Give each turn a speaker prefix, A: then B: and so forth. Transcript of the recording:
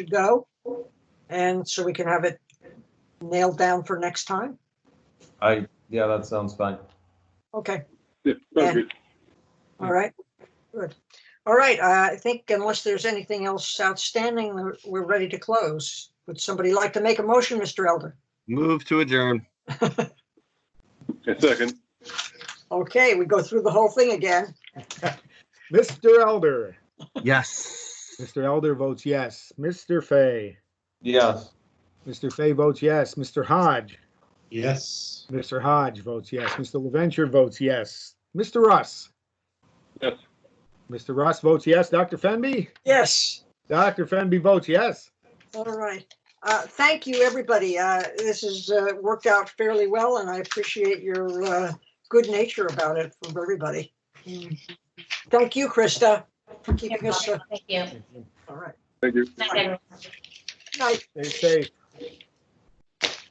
A: should go. And so we can have it nailed down for next time.
B: I, yeah, that sounds fine.
A: Okay,
C: Yeah, sounds
A: Yeah.
C: good.
A: all right, good. All right, uh, I think unless there's anything else outstanding, we're- we're ready to close. Would somebody like to make a motion, Mr. Elder?
D: Move to adjourn.
C: A second.
A: Okay, we go through the whole thing again.
E: Mr. Elder.
D: Yes.
E: Mr. Elder votes yes. Mr. Fay.
B: Yes.
E: Mr. Fay votes yes. Mr. Hodge.
F: Yes.
E: Mr. Hodge votes yes. Mr. LaVenture votes yes. Mr. Russ.
C: Yes.
E: Mr. Russ votes yes. Dr. Fenby?
A: Yes,
E: Dr. Fenby votes yes.
A: all right. Uh, Thank you, everybody. Uh, This has uh, worked out fairly well, and I appreciate your uh, good nature about it from everybody. Thank you, Krista, for keeping us, uh,
G: Mm-hmm. Thank you.
A: all right.
C: Thank you.
G: Night, everyone.
A: Night.
E: Stay safe.